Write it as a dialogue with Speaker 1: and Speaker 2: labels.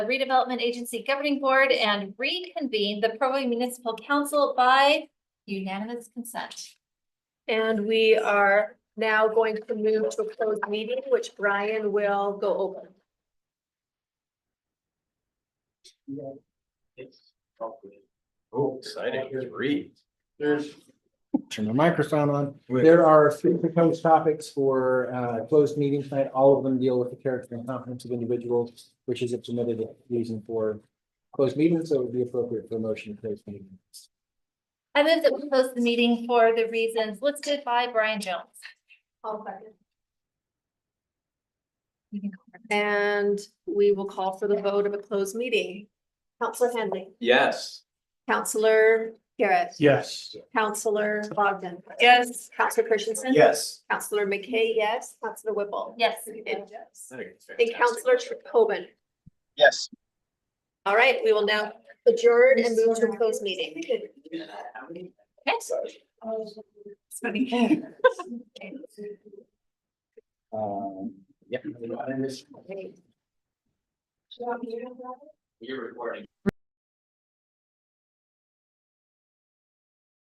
Speaker 1: Redevelopment Agency Governing Board and reconvene the Provo Municipal Council by unanimous consent.
Speaker 2: And we are now going to move to a closed meeting, which Brian will go open.
Speaker 3: Oh, exciting, read.
Speaker 4: There's,
Speaker 5: Turn my microphone on.
Speaker 3: Wait.
Speaker 5: There are three proposed topics for uh closed meeting tonight. All of them deal with the character and competence of individuals, which is a permitted reason for closed meetings, so it would be appropriate for a motion to close meetings.
Speaker 1: I move that we close the meeting for the reasons listed by Brian Jones. You can go first.
Speaker 2: And we will call for the vote of a closed meeting. Counselor Henley,
Speaker 3: Yes.
Speaker 2: Counselor Garrett,
Speaker 4: yes.
Speaker 2: Counselor Bogdan. Yes. Counselor Christensen.
Speaker 3: Yes.
Speaker 2: Counselor McKay, yes. Counselor Whipple.
Speaker 1: Yes.
Speaker 2: And and Counselor Tobin.
Speaker 3: Yes.
Speaker 2: All right, we will now adjourn and move to a closed meeting.
Speaker 5: Um, yeah.
Speaker 3: You're recording.